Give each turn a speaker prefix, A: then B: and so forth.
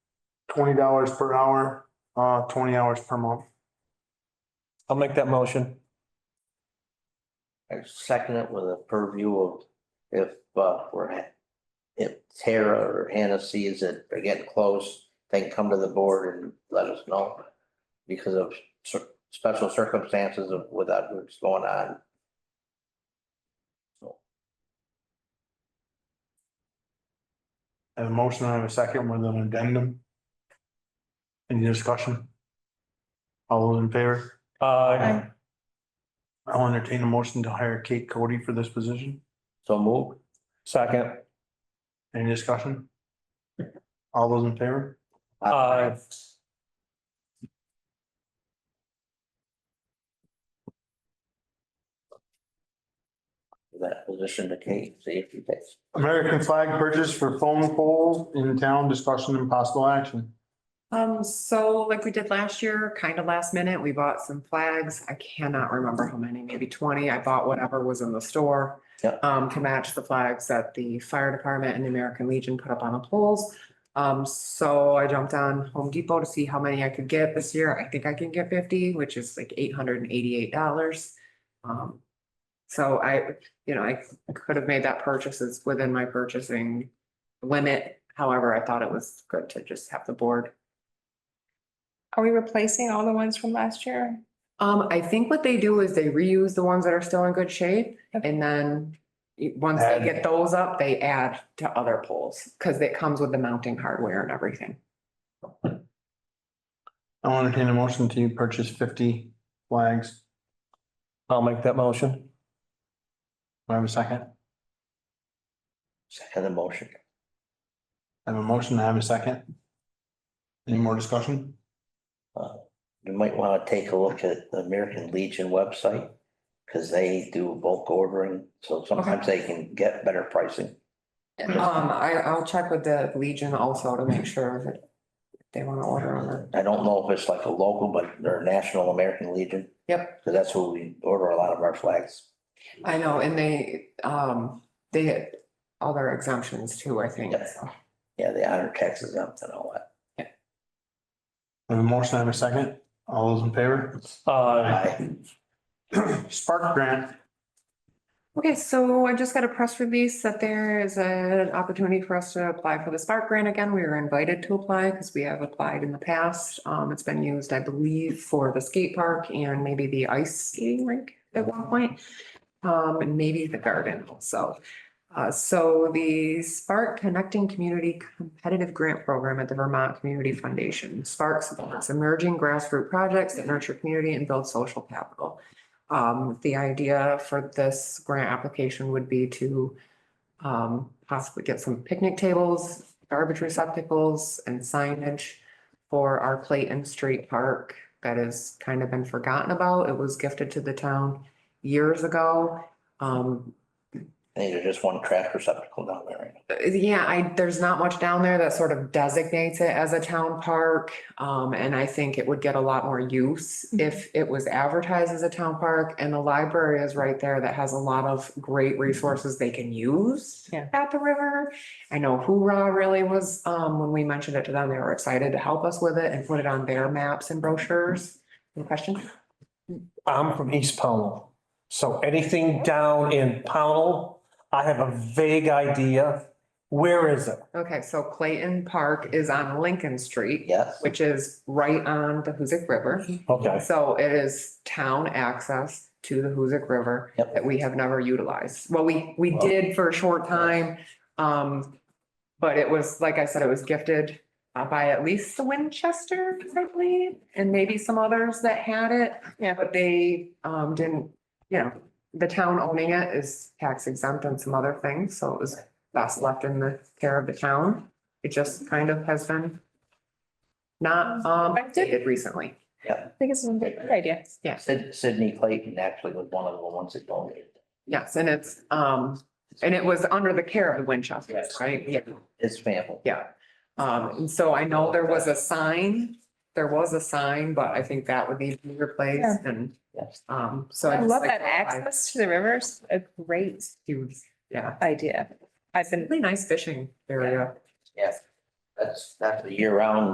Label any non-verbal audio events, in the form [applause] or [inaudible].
A: twenty dollars per hour, uh, twenty hours per month.
B: I'll make that motion.
C: I second it with a purview of if uh we're at. If Tara or Hannah sees that they're getting close, then come to the board and let us know. Because of cer- special circumstances of without what's going on. So
A: And a motion and a second with an addendum. Any discussion? All those in favor?
B: Uh,
A: I'll entertain a motion to hire Kate Cody for this position.
C: so move,
B: second,
A: Any discussion? All those in favor?
B: uh,
C: that position to Kate, see if you takes.
A: American flag purchase for phone poles in town, discussion and possible action.
D: Um, so like we did last year, kind of last minute, we bought some flags. I cannot remember how many, maybe twenty. I bought whatever was in the store.
C: Yeah.
D: Um, to match the flags that the fire department and the American Legion put up on the poles. Um, so I jumped on Home Depot to see how many I could get this year. I think I can get fifty, which is like eight hundred and eighty-eight dollars. Um, so I, you know, I could have made that purchase. It's within my purchasing limit. However, I thought it was good to just have the board
E: Are we replacing all the ones from last year?
D: Um, I think what they do is they reuse the ones that are still in good shape
E: Okay.
D: and then. y- Once they
A: Add.
D: get those up, they add to other poles, cause it comes with the mounting hardware and everything.
A: I'll entertain a motion to purchase fifty flags.
B: I'll make that motion.
A: Do I have a second?
C: Second the motion.
A: I have a motion, I have a second. Any more discussion?
C: Uh, You might want to take a look at the American Legion website, because they do bulk ordering, so sometimes they can get better pricing.
D: Um, I, I'll check with the Legion also to make sure that they wanna order on it.
C: I don't know if it's like a local, but they're National American Legion.
D: Yep.
C: So that's where we order a lot of our flags.
D: I know, and they, um, they had all their exemptions too, I think.
C: Yeah.
D: so.
C: Yeah, they honor taxes up and all that.
A: I have a motion, I have a second. All those in favor? [clears throat]
B: Uh,
C: Aye.
A: Spark grant,
D: Okay, so I just got a press release that there is an opportunity for us to apply for the Spark Grant again. We were invited to apply because we have applied in the past. Um, it's been used, I believe, for the skate park and maybe the ice skating rink at one point. Um, and maybe the garden also. Uh, so the Spark Connecting Community Competitive Grant Program at the Vermont Community Foundation. Spark supports emerging grassroots projects that nurture community and build social capital. Um, the idea for this grant application would be to um, possibly get some picnic tables, garbage receptacles and signage for our Clayton Street Park that has kind of been forgotten about. It was gifted to the town years ago. Um,
C: These are just one trash receptacle down there.
D: yeah, I, there's not much down there that sort of designates it as a town park. Um, and I think it would get a lot more use if it was advertised as a town park and the library is right there that has a lot of great resources they can use
E: Yeah.
D: at the river. I know Hoorah really was, um, when we mentioned it to them, they were excited to help us with it and put it on their maps and brochures. Any question?
B: I'm from East Pownell, so anything down in Pownell, I have a vague idea. Where is it?
D: Okay, so Clayton Park is on Lincoln Street,
C: Yes,
D: which is right on the Hoosick River.
B: Okay,
D: So it is town access to the Hoosic River
C: Yep.
D: that we have never utilized. Well, we, we
C: Wow.
D: did for a short time. Um, but it was, like I said, it was gifted uh, by at least the Winchester, I believe, and maybe some others that had it.
E: Yeah.
D: But they, um, didn't, you know, the town owning it is tax exempt and some other things, so it was best left in the care of the town. It just kind of has been not, um, updated recently.
E: I think it's a good idea.
C: Sid- Sydney Clayton actually was one of the ones that donated.
D: Yes, and it's, um, and it was under the care of the Winchesters,
C: Yes.
D: right? Yeah.
C: His family.
D: Yeah. Um, and so I know there was a sign, there was a sign, but I think that would need to be replaced and,
C: Yes.
D: um, so.
E: I
D: just
E: love
D: like-
E: that access to the rivers. A great
D: Huge, yeah.
E: idea. I've been
D: Really nice fishing area.
C: Yes. That's, that's a year round